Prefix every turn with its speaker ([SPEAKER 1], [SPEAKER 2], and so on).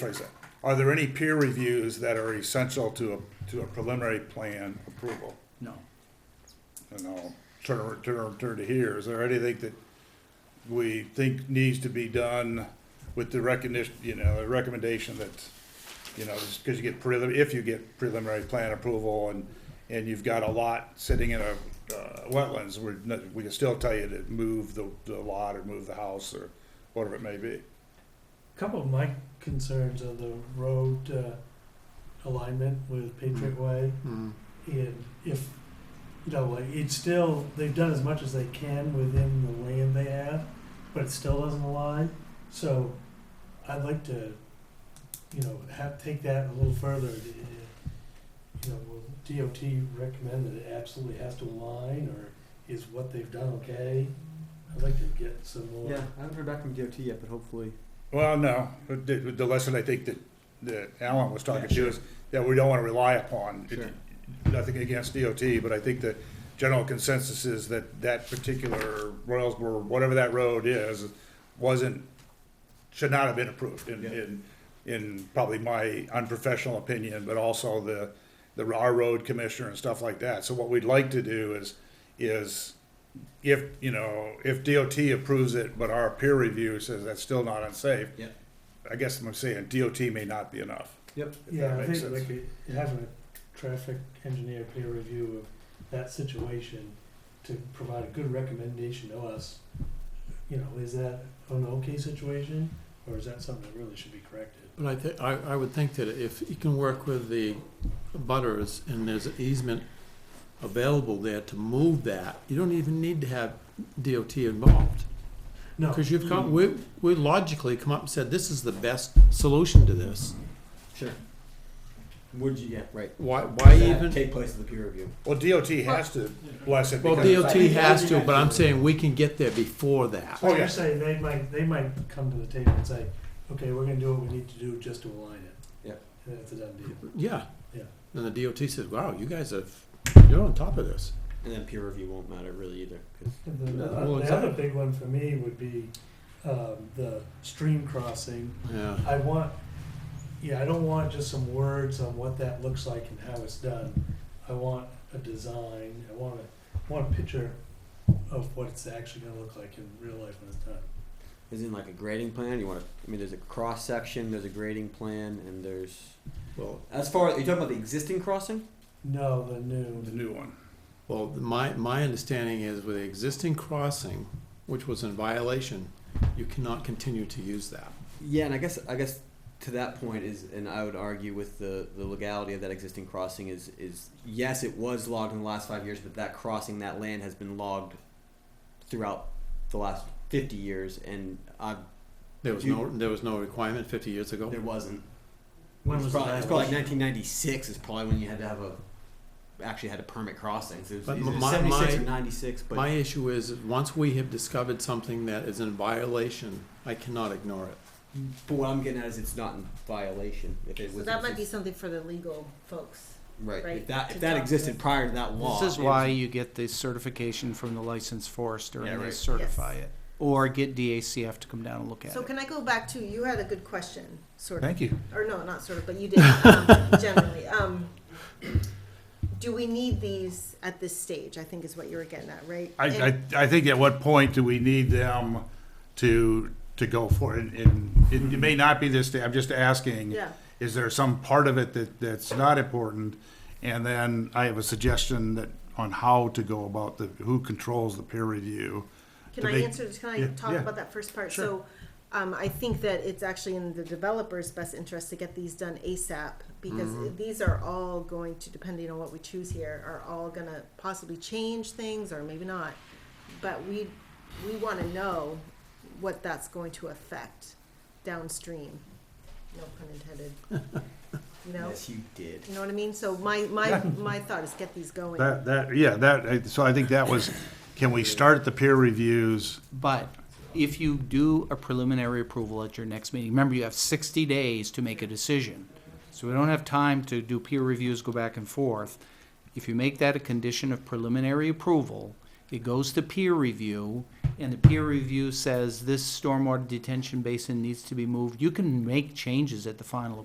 [SPEAKER 1] phrase it. Are there any peer reviews that are essential to a, to a preliminary plan approval?
[SPEAKER 2] No.
[SPEAKER 1] And I'll turn, turn, turn to here, is there anything that we think needs to be done with the recognition, you know, the recommendation that, you know, because you get prelim, if you get preliminary plan approval and, and you've got a lot sitting in a, uh, wetlands, we're, not- we can still tell you to move the, the lot or move the house or whatever it may be.
[SPEAKER 3] Couple of my concerns are the road uh, alignment with Patriot Way,
[SPEAKER 2] Hmm.
[SPEAKER 3] and if, you know, like, it's still, they've done as much as they can within the land they have, but it still doesn't align, so I'd like to, you know, have, take that a little further. uh, You know, will DOT recommend that it absolutely has to align, or is what they've done okay? I'd like to get some more.
[SPEAKER 2] Yeah, I haven't heard back from DOT yet, but hopefully.
[SPEAKER 1] Well, no, but the, the lesson I think that, that Alan was talking to is that we don't wanna rely upon.
[SPEAKER 2] Sure.
[SPEAKER 1] Nothing against DOT, but I think the general consensus is that that particular Royalsboro, whatever that road is, wasn't, should not have been approved in,
[SPEAKER 2] Yeah.
[SPEAKER 1] in, in probably my unprofessional opinion, but also the, the, our road commissioner and stuff like that. So what we'd like to do is, is if, you know, if DOT approves it, but our peer review says that's still not unsafe,
[SPEAKER 2] Yeah.
[SPEAKER 1] I guess I'm saying DOT may not be enough.
[SPEAKER 2] Yep.
[SPEAKER 1] if that
[SPEAKER 3] Yeah, I
[SPEAKER 1] makes
[SPEAKER 3] think
[SPEAKER 1] sense.
[SPEAKER 3] like it- having a traffic engineer peer review of that situation to provide a good recommendation to us, you know, is that an okay situation or is that something that really should be corrected?
[SPEAKER 4] But I think, I, I would think that if you can work with the butters and there's an easement available there to move that, you don't even need to have DOT involved.
[SPEAKER 3] No,
[SPEAKER 4] Because you've come, we, we logically come up and said, this is the best solution to this.
[SPEAKER 2] Sure. Would you? Yeah. Right.
[SPEAKER 4] Why, why
[SPEAKER 2] Does that
[SPEAKER 4] even?
[SPEAKER 2] take place at the peer review?
[SPEAKER 1] Well, DOT has to bless it
[SPEAKER 4] Well,
[SPEAKER 1] because.
[SPEAKER 4] DOT has to, but I'm saying we can get there before that.
[SPEAKER 1] Oh,
[SPEAKER 3] so
[SPEAKER 1] yeah.
[SPEAKER 3] you're saying they might, they might come to the table and say, okay, we're gonna do what we need to do just to align it.
[SPEAKER 2] Yep.
[SPEAKER 3] And that's a done deal.
[SPEAKER 4] Yeah.
[SPEAKER 3] Yeah.
[SPEAKER 4] And the DOT says, wow, you guys have, you're on top of this.
[SPEAKER 2] And then peer review won't matter really either. 'cause-
[SPEAKER 3] And then the,
[SPEAKER 4] Well,
[SPEAKER 3] the
[SPEAKER 4] exactly.
[SPEAKER 3] other big one for me would be, um, the stream crossing
[SPEAKER 4] Yeah.
[SPEAKER 3] I want, yeah, I don't want just some words on what that looks like and how it's done. I want a design, I want a, want a picture of what it's actually gonna look like in real life when it's done.
[SPEAKER 2] Is in like a grading plan? You want to? I mean, there's a cross section, there's a grading plan, and there's
[SPEAKER 4] Well,
[SPEAKER 2] as far as you talking about the existing crossing.
[SPEAKER 3] No, the new,
[SPEAKER 1] The new one.
[SPEAKER 4] Well, my, my understanding is with the existing crossing, which was in violation, you cannot continue to use that.
[SPEAKER 2] Yeah, and I guess I guess to that point is, and I would argue with the the legality of that existing crossing is is yes, it was logged in the last five years, but that crossing that land has been logged throughout the last fifty years, and I
[SPEAKER 4] There was
[SPEAKER 2] You-
[SPEAKER 4] no, there was no requirement fifty years ago.
[SPEAKER 2] there wasn't.
[SPEAKER 3] When
[SPEAKER 2] it's
[SPEAKER 3] was the
[SPEAKER 2] probably, it's probably
[SPEAKER 3] violation?
[SPEAKER 2] like nineteen ninety six is probably when you had to have a actually had a permit crossing. So it was
[SPEAKER 4] But
[SPEAKER 2] either
[SPEAKER 4] my-
[SPEAKER 2] seventy six or
[SPEAKER 4] my-
[SPEAKER 2] ninety six, but
[SPEAKER 4] My issue is, once we have discovered something that is in violation, I cannot ignore it.
[SPEAKER 2] but what I'm getting at is it's not in violation. If it
[SPEAKER 5] So
[SPEAKER 2] was
[SPEAKER 5] that might be something for the legal folks.
[SPEAKER 2] right.
[SPEAKER 5] right,
[SPEAKER 2] If that
[SPEAKER 5] to
[SPEAKER 2] if that
[SPEAKER 5] talk to
[SPEAKER 2] existed
[SPEAKER 5] us.
[SPEAKER 2] prior to that law,
[SPEAKER 6] This is
[SPEAKER 2] it
[SPEAKER 6] why
[SPEAKER 2] was-
[SPEAKER 6] you get the certification from the licensed forester
[SPEAKER 2] Yeah,
[SPEAKER 6] and they
[SPEAKER 2] right.
[SPEAKER 6] certify it. Or get DACF to come down and look at
[SPEAKER 5] So
[SPEAKER 6] it.
[SPEAKER 5] can I go back to, you had a good question, sort of,
[SPEAKER 6] Thank you.
[SPEAKER 5] or no, not sort of, but you did, um, generally. Um, Do we need these at this stage, I think is what you were getting at, right?
[SPEAKER 1] I,
[SPEAKER 5] And-
[SPEAKER 1] I, I think at what point do we need them to, to go for it? And it, it may not be this day, I'm just asking.
[SPEAKER 5] Yeah.
[SPEAKER 1] Is there some part of it that, that's not important? And then I have a suggestion that, on how to go about the, who controls the peer review.
[SPEAKER 5] Can
[SPEAKER 1] to
[SPEAKER 5] I
[SPEAKER 1] make-
[SPEAKER 5] answer, can I
[SPEAKER 1] Yeah,
[SPEAKER 5] talk
[SPEAKER 1] yeah.
[SPEAKER 5] about that first part?
[SPEAKER 1] Sure.
[SPEAKER 5] So, um, I think that it's actually in the developer's best interest to get these done ASAP,
[SPEAKER 1] Mm-hmm.
[SPEAKER 5] because these are all going to, depending on what we choose here, are all gonna possibly change things, or maybe not. But we, we wanna know what that's going to affect downstream, no pun intended. You know,
[SPEAKER 2] Yes, you did.
[SPEAKER 5] you know what I mean? So my, my, my thought is get these going.
[SPEAKER 1] That, that, yeah, that, so I think that was, can we start the peer reviews?
[SPEAKER 6] But if you do a preliminary approval at your next meeting, remember you have sixty days to make a decision. So we don't have time to do peer reviews, go back and forth. If you make that a condition of preliminary approval, it goes to peer review and the peer review says this stormwater detention basin needs to be moved, you can make changes at the final